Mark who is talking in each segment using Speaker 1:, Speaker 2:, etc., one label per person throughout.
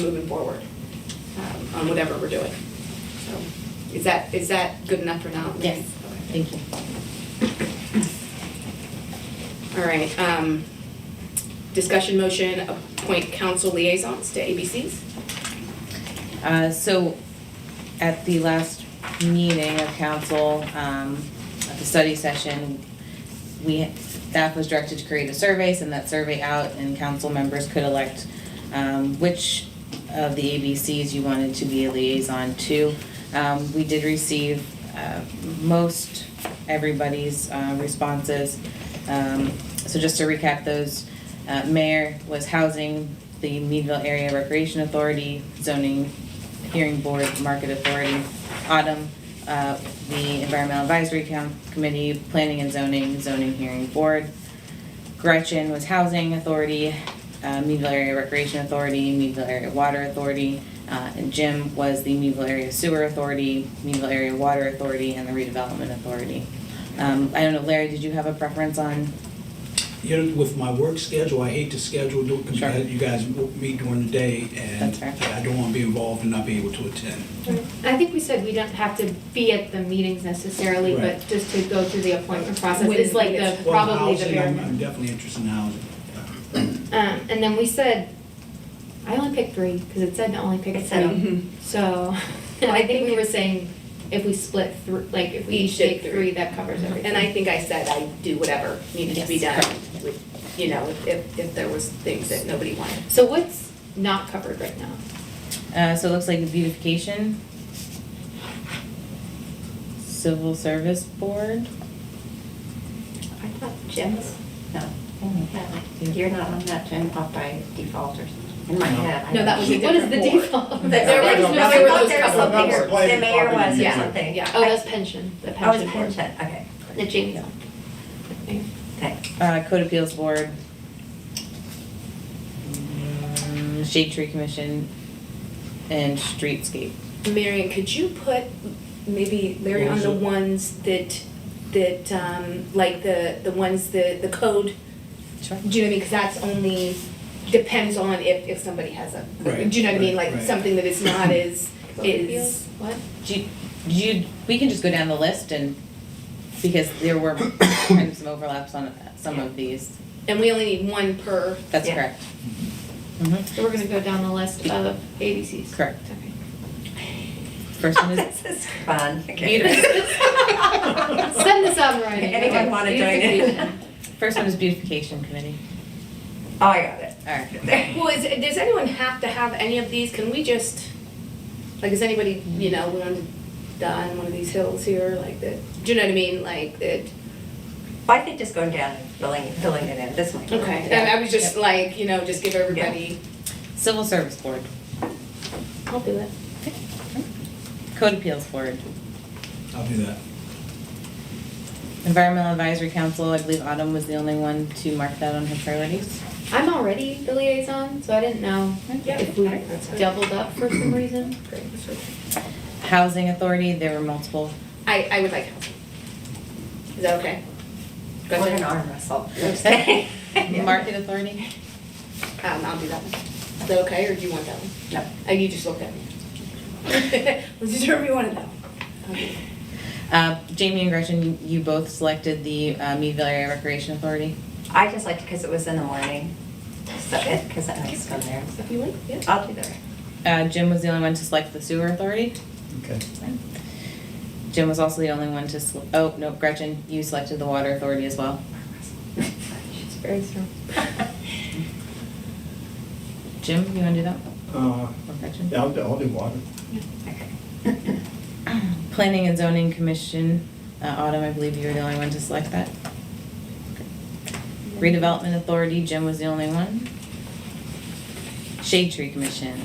Speaker 1: moving forward um, on whatever we're doing. So, is that, is that good enough for now?
Speaker 2: Yes, thank you.
Speaker 1: All right, um, discussion motion, appoint council liaisons to ABCs.
Speaker 2: Uh, So at the last meeting of council, um, at the study session, we, staff was directed to create a survey, send that survey out, and council members could elect um, which of the ABCs you wanted to be a liaison to. Um, We did receive uh, most everybody's uh, responses. Um, So just to recap those, uh, mayor was housing, the Meadville Area Recreation Authority, zoning hearing board, market authority, autumn, uh, the Environmental Advisory Com- Committee, planning and zoning, zoning hearing board. Gretchen was housing authority, uh, Meadville Area Recreation Authority, Meadville Area Water Authority, uh, and Jim was the Meadville Area Sewer Authority, Meadville Area Water Authority, and the Redevelopment Authority. Um, I don't know, Larry, did you have a preference on,
Speaker 3: You know, with my work schedule, I hate to schedule, do- 'cause you
Speaker 2: Sure.
Speaker 3: guys- you guys meet during the day, and
Speaker 2: That's fair.
Speaker 3: I don't want to be involved and not be able to attend.
Speaker 4: I think we said we don't have to be at the meetings necessarily, but
Speaker 3: Right.
Speaker 4: just to go through the appointment process
Speaker 1: When
Speaker 4: is like the,
Speaker 1: it's-
Speaker 3: Well,
Speaker 4: probably the
Speaker 3: housing,
Speaker 4: bare
Speaker 3: I'm-
Speaker 4: minimum.
Speaker 3: I'm definitely interested in housing.
Speaker 4: Um, and then we said, I only picked three, because it said to only pick
Speaker 2: It said
Speaker 1: Mm-hmm.
Speaker 4: three. So, I think we were saying if we split through, like if we
Speaker 1: Each
Speaker 4: each
Speaker 1: did
Speaker 4: take
Speaker 1: three.
Speaker 4: three, that covers everything.
Speaker 1: And I think I said I'd do whatever needed to be done,
Speaker 2: Yes,
Speaker 1: with, you know, if, if there was things that nobody wanted.
Speaker 4: So what's not covered right now?
Speaker 2: uh, so it looks like beautification, civil service board?
Speaker 4: I thought
Speaker 5: Jim's? No. You're not on that, Jim, off by default or something, in my
Speaker 3: No.
Speaker 5: head. I
Speaker 1: No, that
Speaker 5: don't-
Speaker 1: was a
Speaker 4: What is the
Speaker 1: different
Speaker 4: default?
Speaker 5: But
Speaker 1: There
Speaker 5: there
Speaker 1: was
Speaker 5: was,
Speaker 1: no-
Speaker 5: no,
Speaker 1: there
Speaker 5: I
Speaker 1: were
Speaker 5: thought
Speaker 1: those
Speaker 5: there was
Speaker 1: couple
Speaker 5: something,
Speaker 1: numbers.
Speaker 5: the mayor was or
Speaker 1: Yeah.
Speaker 5: something.
Speaker 1: Yeah.
Speaker 4: Oh, that's pension, the
Speaker 5: Oh, it's
Speaker 4: pension board.
Speaker 5: pension, okay, the Jamie,
Speaker 4: Okay.
Speaker 5: okay.
Speaker 2: Uh, Code Appeals Board. mm, Shade Tree Commission and Streetscape.
Speaker 1: Marion, could you put maybe Larry on the ones that, that, um, like the, the ones that, the code?
Speaker 2: Sure.
Speaker 1: Do you know what I mean? Because that's only, depends on if, if somebody has a,
Speaker 3: Right,
Speaker 1: do you know what I mean?
Speaker 3: right,
Speaker 1: Like
Speaker 3: right.
Speaker 1: something that is not as, is,
Speaker 4: Is, what?
Speaker 2: Do you, do you, we can just go down the list and, because there were kind of some overlaps on some of these.
Speaker 1: and we only need one per.
Speaker 2: That's
Speaker 5: Yeah.
Speaker 2: correct. Mhm,
Speaker 4: So we're gonna go down the list of ABCs.
Speaker 2: correct.
Speaker 4: Okay.
Speaker 2: First one is
Speaker 5: This is fun, okay.
Speaker 2: beautification.
Speaker 4: Send this out, Ryan.
Speaker 5: Anyone wanna join it?
Speaker 2: First one is beautification committee.
Speaker 5: Oh, I got it.
Speaker 2: All right.
Speaker 1: Well, is, does anyone have to have any of these? Can we just, like, is anybody, you know, willing to die on one of these hills here, like that? Do you know what I mean? Like that?
Speaker 5: Well, I think just going down and filling, filling it in, this one.
Speaker 1: Okay. And I was just like, you know, just give everybody.
Speaker 2: Civil Service Board,
Speaker 1: I'll do it.
Speaker 2: Code Appeals Board,
Speaker 3: I'll do that.
Speaker 2: Environmental Advisory Council, I believe Autumn was the only one to mark that on her priorities.
Speaker 4: I'm already the liaison, so I didn't know
Speaker 1: Yeah.
Speaker 4: if we
Speaker 1: That's fine.
Speaker 4: doubled up for some reason.
Speaker 1: Great. that's okay.
Speaker 2: Housing Authority, there were multiple
Speaker 1: I, I would like help. Is that okay?
Speaker 5: What
Speaker 1: Gretchen?
Speaker 5: an
Speaker 1: Um,
Speaker 5: arm wrestle.
Speaker 2: Okay. Market authority?
Speaker 1: Um, I'll do that one. Is that okay, or do you want that one?
Speaker 5: No.
Speaker 1: Oh, you just looked at me. Was you sure you wanted that one? I'll do it.
Speaker 2: Uh, Jamie and Gretchen, you both selected the uh, Meadville Area Recreation Authority.
Speaker 5: I just liked it because it was in the morning, so, because I like to go there.
Speaker 1: If you want, yeah.
Speaker 5: I'll do that.
Speaker 2: Uh, Jim was the only one to select the sewer authority.
Speaker 3: Okay.
Speaker 2: Jim was also the only one to, sel- oh, no, Gretchen, you selected the water authority as well.
Speaker 4: She's very strong.
Speaker 2: Jim, you wanna do that?
Speaker 6: Uh,
Speaker 2: Or Gretchen?
Speaker 6: yeah, I'll, do- I'll do water.
Speaker 2: Planning and zoning commission, uh, Autumn, I believe you were the only one to select that. Redevelopment authority, Jim was the only one. Shade tree commission,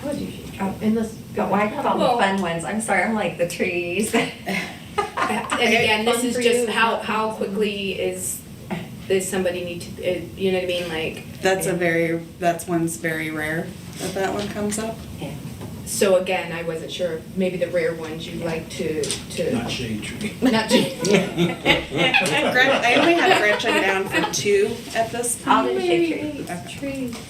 Speaker 4: How would you, shoot?
Speaker 5: Oh.
Speaker 4: unless.
Speaker 5: But why have all
Speaker 1: Well-
Speaker 5: the fun ones? I'm sorry, I'm like the trees.
Speaker 1: And again, this
Speaker 4: Fun
Speaker 1: is
Speaker 4: for
Speaker 1: just
Speaker 4: you.
Speaker 1: how, how quickly is, does somebody need to, uh, you know what I mean, like,
Speaker 7: That's a very, that's one's very rare that that one comes up.
Speaker 5: Yeah.
Speaker 1: so again, I wasn't sure, maybe the rare ones you'd like to, to,
Speaker 3: Not shade tree.
Speaker 1: not to.
Speaker 7: Gret- I only have Gretchen down for two at this point.
Speaker 5: I'll do shade tree.
Speaker 4: Trees.